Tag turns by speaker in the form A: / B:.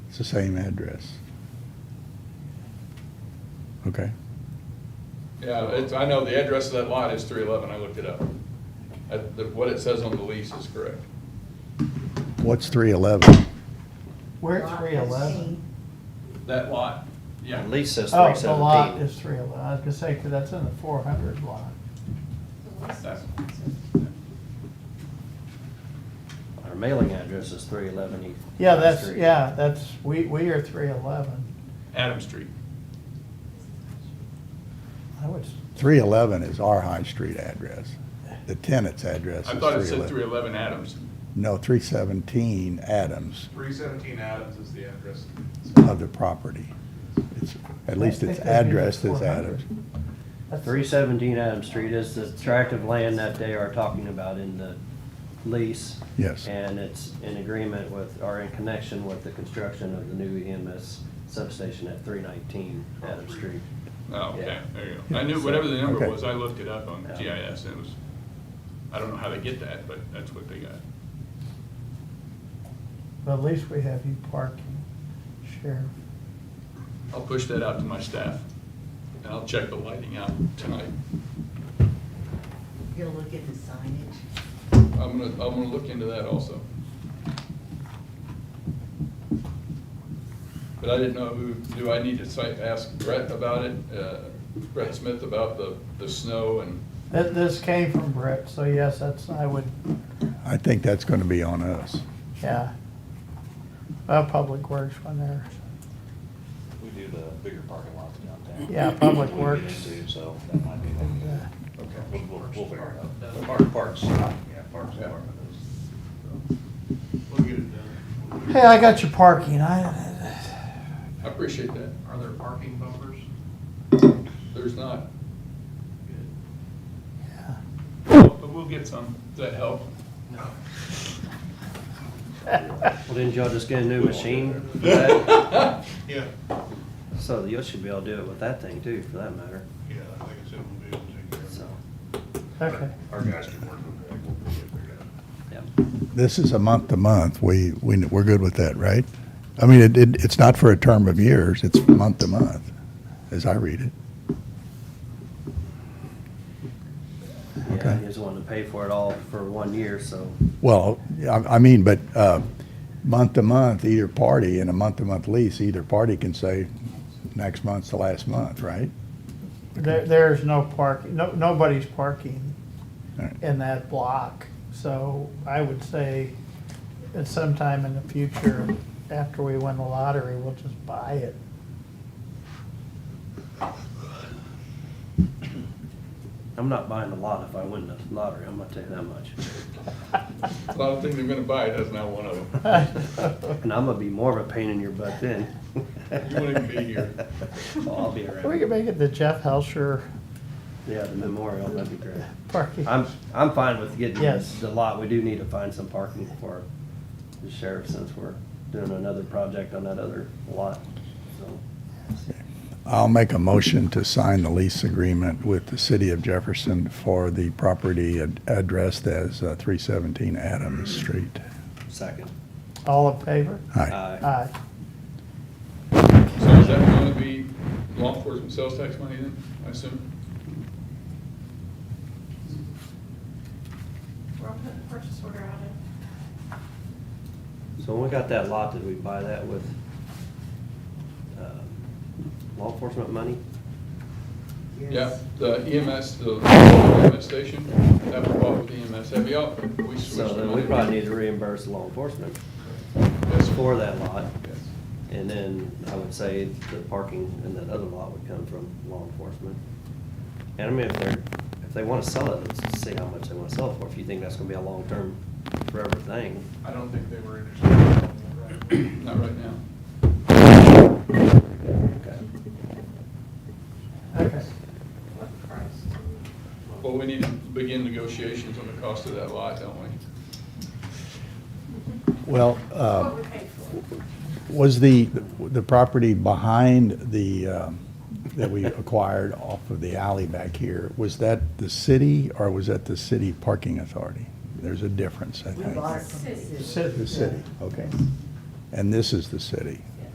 A: the same address. Okay,
B: Yeah, it's, I know the address of that lot is three eleven, I looked it up. Uh, the- What it says on the lease is correct.
A: what's three eleven?
C: We're at
D: Lot
C: three eleven.
D: 15.
B: That lot, yeah.
E: At least says
C: Oh,
E: three
C: the lot
E: seventeen.
C: is three eleven. I was gonna say, 'cause that's in the four hundred lot.
D: The lease
B: That's-
D: is-
E: Our mailing address is three eleven East.
C: Yeah, that's,
E: Street.
C: yeah, that's, we, we are three eleven.
B: Adam Street.
C: I would, s-
A: Three eleven is our High Street address. The tenant's address
B: I thought it
A: is three
B: said three
A: eleven.
B: eleven Adams.
A: No, three seventeen Adams
B: Three seventeen Adams is the address.
A: of the property. It's, at least
C: I
A: it's
C: think that'd be the
A: addressed as
C: 400.
A: Adams.
C: that's.
E: Three seventeen Adams Street is the tract of land that they are talking about in the lease.
A: Yes.
E: And it's in agreement with, or in connection with the construction of the new EMS substation at three nineteen Adams Street.
B: Oh, okay,
E: Yeah.
B: there you go. I knew, whatever the number
A: Okay.
B: was, I looked it up on
E: Yeah.
B: GIS, and it was, I don't know how they get that, but that's what they got.
C: But at least we have you parking, Sheriff.
B: I'll push that out to my staff, and I'll check the lighting out tonight.
D: You're gonna look at the signage.
B: I'm gonna, I'm gonna look into that also. But I didn't know who, do I need to cite, ask Brett about it, uh, Brett Smith about the, the snow and,
C: This, this came from Brett, so yes, that's, I would,
A: I think that's gonna be on us.
C: yeah. Uh, Public Works when they're,
F: We do the bigger parking lots downtown.
C: Yeah, Public
F: We get
C: Works.
F: into, So that might be
C: uh,
F: one.
B: okay.
F: We'll, we'll, we'll figure it out. Park, parks, yeah, parks
B: Yeah.
F: department is.
B: We'll get it done.
C: hey, I got your parking. I,
B: I appreciate that.
G: Are there parking bumpers?
B: There's not.
C: yeah.
B: But we'll get some. Does that help?
G: No.
E: Well, didn't y'all just get a new machine? for that?
G: Yeah,
E: So you should be able to do it with that thing too, for that matter,
G: yeah, like I said, we'll be able to take care of
E: so,
G: it.
C: Okay.
G: Our guys can work on that, we'll get it figured out.
E: yeah.
A: This is a month to month. We, we, we're good with that, right? I mean, it, it, it's not for a term of years, it's month to month, as I read it.
E: Yeah,
A: Okay.
E: he just wanted to pay for it all for one year, so
A: Well, I, I mean, but, uh, month to month, either party, in a month to month lease, either party can say, next month's the last month, right?
C: There, there's no parking, no, nobody's parking
A: All right.
C: in that block. So I would say at some time in the future, after we win the lottery, we'll just buy it.
E: I'm not buying a lot if I win the lottery, I'm gonna tell you that much.
B: A lot of things I'm gonna buy, that's not one of them.
E: And I'm gonna be more of a pain in your butt then.
B: won't even be here.
E: Oh, I'll be around.
C: We could make it the Jeff Helsher
E: Yeah, the memorial, that'd be great.
C: parking.
E: I'm, I'm fine with getting
C: Yes.
E: the lot, we do need to find some parking for the sheriff since we're doing another project on that other lot, so.
A: I'll make a motion to sign the lease agreement with the city of Jefferson for the property ad- addressed as uh, three seventeen Adams Street.
E: Second.
C: All Uh, in favor?
A: Aye.
C: Aye.
B: So is that gonna be law enforcement sales tax money then, I assume?
D: We're all putting the purchase order out in.
E: So when we got that lot, did we buy that with, um, law enforcement money?
B: Yeah, the EMS, the EMS station, that was bought with EMS. E Have y'all, we switched.
E: So then we
B: money.
E: probably need to reimburse law enforcement
B: Yes.
E: for that lot.
B: Yes.
E: And then I would say the parking in that other lot would come from law enforcement. And I mean, if they're, if they wanna sell it, let's see how much they wanna sell it for, if you think that's gonna be a long-term forever thing.
G: I don't think they were interested in that right away.
B: Not right now.
E: Okay.
C: Okay.
D: What price?
B: Well, we need to begin negotiations on the cost of that lot, don't we?
A: Well,
D: What
A: uh,
D: we paid for.
A: was the, the property behind the, um, that we acquired off of the alley back here, was that the city or was that the city parking authority? There's a difference, I
D: We
A: think.
D: bought it from the
C: City.
A: The city, okay. And this is the city.